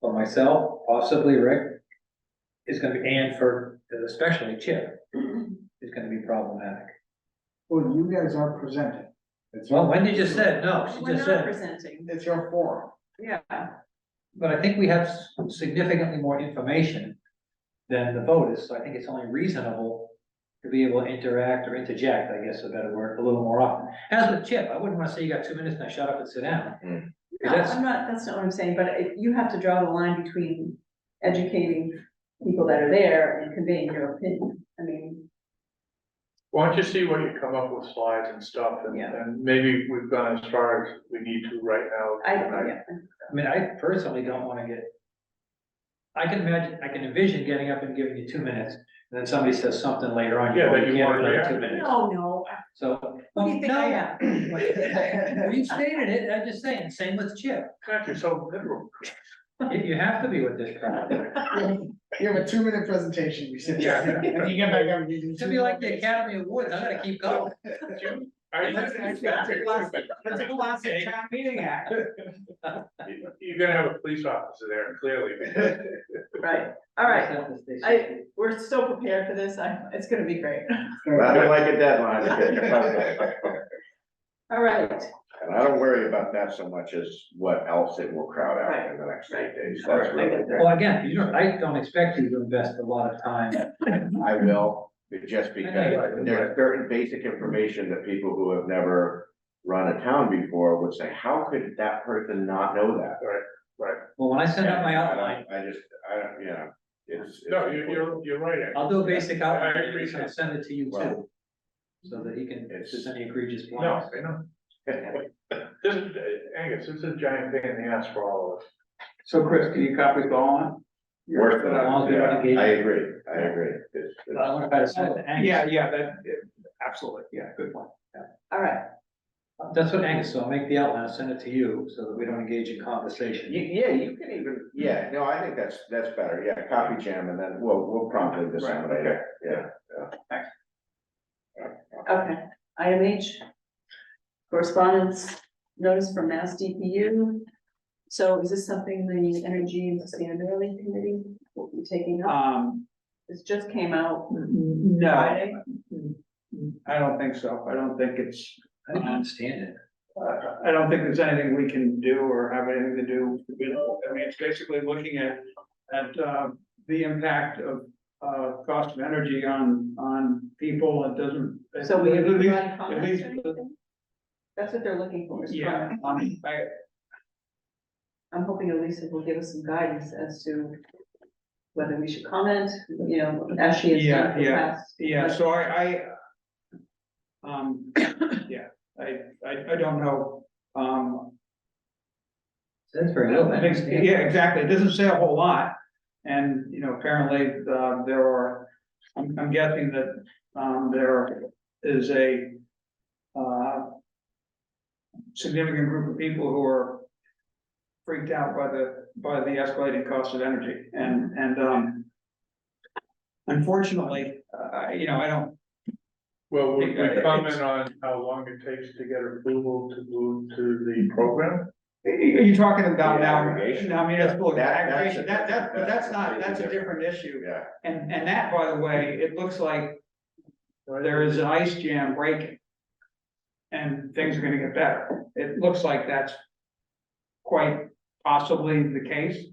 for myself, possibly Rick, is gonna be, and for, especially Chip, is gonna be problematic. Well, you guys are presenting. It's Well, your, Wendy just said, no, she We're just not said, presenting, it's your forum. yeah, but I think we have significantly more information than the vote is, so I think it's only reasonable to be able to interact or interject, I guess is a better word, a little more often. As with Chip, I wouldn't wanna say you got two minutes, now shut up and sit down. no, That's- I'm not, that's not what I'm saying, but it- you have to draw the line between educating people that are there and conveying your opinion, I mean, Why don't you see what you come up with slides and stuff, and, Yeah. and maybe we've gone as far as we need to right now. I, tonight. yeah, I mean, I personally don't wanna get. I can imagine, I can envision getting up and giving you two minutes, and then somebody says something later on. Yeah, go, that you can't wanna another react Two to. minutes, no, no, so. what do you think I am? Well, You stated it, I'm just saying, same with Chip, God, you're so literal. you, you have to be with this crowd. You have a two minute presentation, you sit there, Yeah. and you get back up. you do It should two be like more the minutes. Academy Awards, I'm gonna keep going. Are you, That's a classic- that's a classic town meeting act. you're gonna have a police officer there, clearly. Right, all right, I, we're so prepared for this, I, it's gonna be great, Nothing like a deadline. to get your project done. all right, And I don't worry about that so much as what else it will crowd out in the next eight days. That's Right, right. really, Well, again, you don't, I don't expect you to invest a lot of time, I will, but just because know. there's certain basic information that people who have never run a town before would say, how could that person not know that? well, when I send out my I don't- outline, I just, I, don't- you know, it's. No, you're, you're, you're right, Ed. I'll do a basic outline, I agree. and I'll send it to you too. Well, So that he can, It's- just any egregious no, ones. I know. This is, Angus, this is a giant pain in the ass for all of us. So Chris, can you copy Dawn? Worse than, As long as I- we yeah, don't engage- I agree, I agree. It's- But I it's- wanna try to send it to Angus. Yeah, yeah, that, absolutely, yeah, good point. all right, That's what Angus, so I'll make the outline, I'll send it to you, so that we don't engage in You- conversation. Yeah, you can even, yeah, no, I think that's, that's better, yeah, copy jam, and then we'll, we'll promptly disseminate it, yeah. okay, item H. Correspondence, notice from Mass DPU, so is this something the Energy and Sustainability Committee will be taking up? Um, This just came out no, Friday. I don't think so. I don't think it's, I don't understand it. uh, I don't think there's anything we can do or have anything to do. with it. I mean, it's basically looking at, at, uh, the impact of, uh, cost of energy on, on people. It doesn't. So we have At least- provide at comments least- uh, or anything? That's what they're looking for, is Yeah, comment. um, I, I'm hoping Elisa will give us some guidance as to whether we should comment, you know, as she has done Yeah, in the yeah, past. Yeah, so I, I. Um, yeah, I, I, I don't know, um, That's very little. I think, yeah, exactly, it doesn't say a whole lot. And, you know, apparently, uh, there are, I'm, I'm guessing that, um, there is a, uh. Significant group of people who are freaked out by the, by the escalating cost of energy and, and, um. Unfortunately, uh, you know, I don't, Well, we Yeah, we it's- comment on how long it takes to get approval to move to the program? Are you talking about Yeah, now, aggregation. no, I mean, that's, look, That- that's a aggregation, that, that, but different- that's not, that's that's a a different issue. Yeah, And, and that, by the way, it looks like there is an ice jam breaking. And things are gonna get better. It looks like that's quite possibly the case.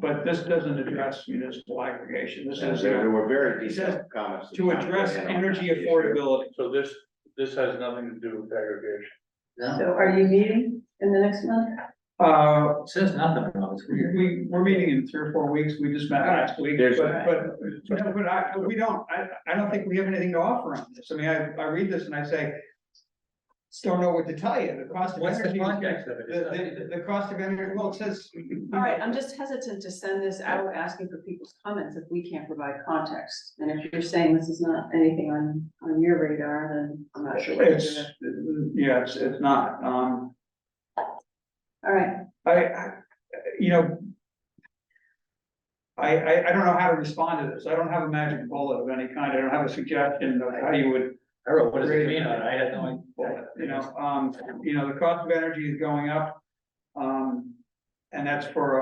But this doesn't address municipal aggregation. This and is there uh, there were very He says detailed comments. to address energy affordability. So this, this has nothing to do with aggregation. No, So are you meeting in the next month? Uh, it says nothing, no, it's weird. we, we're meeting in three or four weeks. We just met last week, There's- but, but No, but I, we don't, I, I don't think we have anything to offer on this. I mean, I, I read this and I say. "Just Don't know what to tell you. The cost of What's the energy. context of it? The, the, the cost of energy, well, it says. All right, I'm just hesitant to send this out asking for people's comments if we can't provide context. And if you're saying this is not anything on, on your radar, then I'm not sure. what to do It's, there. yeah, it's, it's not, um, All right, I, I, you know. I, I, I don't know how to respond to this. I don't have a magic bullet of any kind. I don't have a suggestion of how you would I wrote, what does it mean, I had no idea. you know, um, you know, the cost of energy is going up. Um, and that's for